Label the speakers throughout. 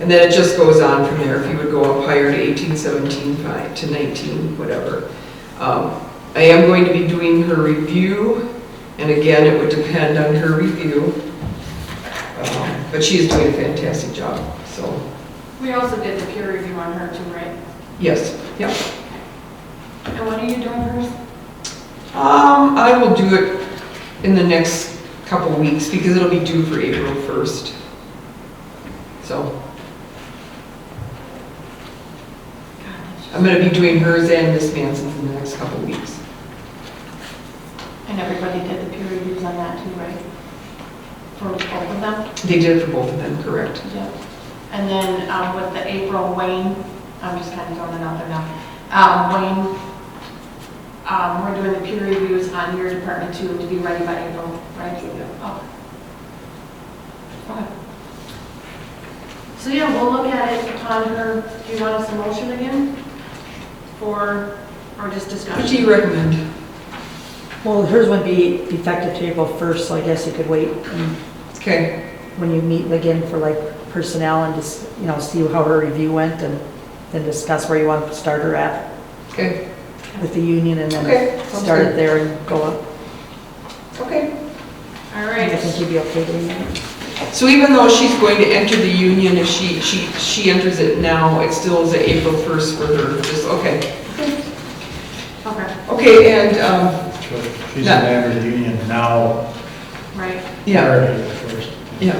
Speaker 1: And then it just goes on from there, if you would go up higher to eighteen seventeen five to nineteen, whatever. Um, I am going to be doing her review, and again, it would depend on her review. Um, But she is doing a fantastic job, so,
Speaker 2: We also did the peer review on her too, right?
Speaker 1: yes, yeah.
Speaker 2: And when are you doing hers?
Speaker 1: Um, I will do it in the next couple weeks because it'll be due for April 1st. So I'm going to be doing hers and Miss Manson's in the next couple weeks.
Speaker 2: And everybody did the peer reviews on that too, right? For both of them?
Speaker 1: They did it for both of them, correct?
Speaker 2: Yep. And then um, with the April Wayne, I'm just kind of throwing it out there now. Um, Wayne, um, we're doing the peer reviews on your department too, to be ready by April, right? Okay. Okay. So yeah, we'll look at it upon her, do you want us to motion again? For, or just discussion?
Speaker 1: What do you recommend?
Speaker 3: Well, hers would be effective to April 1st, so I guess you could wait and
Speaker 1: Okay,
Speaker 3: when you meet again for like personnel and just, you know, see how her review went and then discuss where you want to start her at
Speaker 1: okay,
Speaker 3: with the union and
Speaker 1: Okay,
Speaker 3: then
Speaker 1: sounds
Speaker 3: start
Speaker 1: good.
Speaker 3: it there and go up.
Speaker 1: okay.
Speaker 2: All
Speaker 3: I think
Speaker 2: right.
Speaker 3: you'd be okay doing that.
Speaker 1: So even though she's going to enter the union, if she, she, she enters it now, it still is April 1st for her, just, okay.
Speaker 2: Okay,
Speaker 1: Okay, and, um,
Speaker 4: She's a member of the union now.
Speaker 2: right.
Speaker 1: yeah.
Speaker 4: prior to the first.
Speaker 1: Yeah.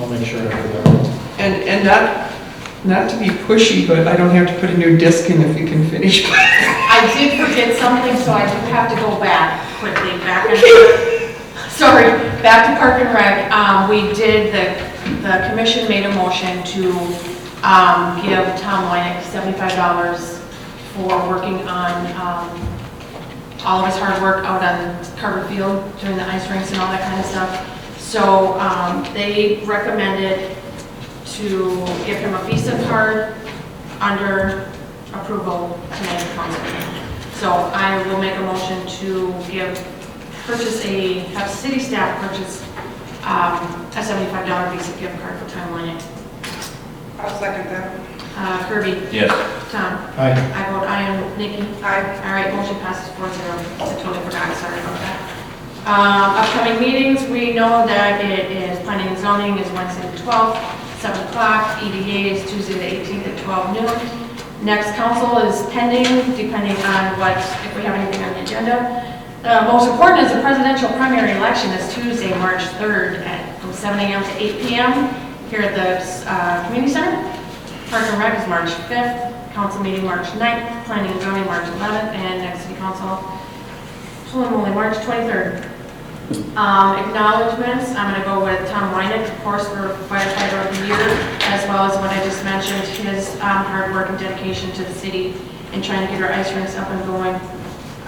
Speaker 4: I'll make sure. I do
Speaker 1: And, and not, not to be pushy, but I don't have to put a new disc in if we can finish.
Speaker 2: I did forget something, so I do have to go back quickly, back and, sorry, back to Park and Rec. Um, we did, the, the commission made a motion to, um, give Tom Wynick seventy-five dollars for working on, um, all of his hard work out on Carver Field doing the ice rinks and all that kind of stuff. So um, they recommended to give him a Visa card under approval tonight at council. So I will make a motion to give, purchase a, have city staff purchase um, a $75 Visa gift card for Time Lanier.
Speaker 5: I'll second that.
Speaker 2: Uh Kirby?
Speaker 6: Yes.
Speaker 2: Tom?
Speaker 4: Aye.
Speaker 2: I vote aye, and Nikki?
Speaker 5: Aye.
Speaker 2: All right, motion passes four zero. I totally forgot, sorry about that. Um, Upcoming meetings, we know that it is, planning and zoning is Wednesday the 12th, 7 o'clock. EDA is Tuesday the 18th at 12 noon. Next council is pending, depending on what, if we have anything on the agenda. The most important is the presidential primary election is Tuesday, March 3rd, at from 7 a.m. to 8 p.m. here at the uh, community center. Park and Rec is March 5th, council meeting March 9th, planning and zoning March 11th, and next city council, preliminary March 23rd. Um, Acknowledgements, I'm going to go with Tom Wynick, of course, for firefighter of the year, as well as what I just mentioned, his um, hard work and dedication to the city in trying to get our ice rinks up and going.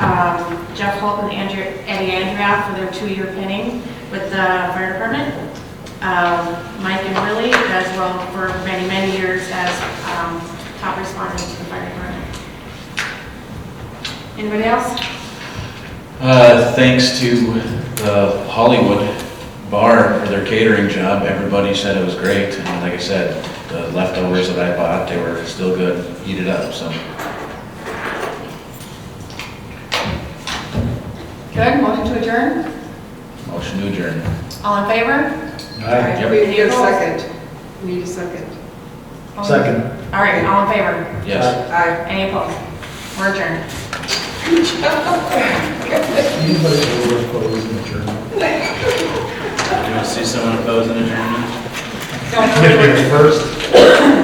Speaker 2: Um, Jeff Holt and Andrea, Eddie Andrea for their two-year pinning with the fire department um, Mike and Willie, as well for many, many years as um, top responders to the fire department. Anybody else?
Speaker 6: Uh, thanks to the Hollywood Bar for their catering job, everybody said it was great. And like I said, the leftovers that I bought, they were still good, heated up, so.
Speaker 2: Good, motion to adjourn?
Speaker 6: Motion to adjourn.
Speaker 2: All in favor?
Speaker 4: Aye.
Speaker 1: We need a second. We need a second.
Speaker 2: All in-
Speaker 4: Second.
Speaker 2: All right, all in favor?
Speaker 6: Yes.
Speaker 1: Aye.
Speaker 2: Any opposed? We're adjourned.
Speaker 4: You guys were opposed in the journal.
Speaker 6: Do you want to see someone opposing adjournment?
Speaker 2: Don't
Speaker 4: Gonna be the first.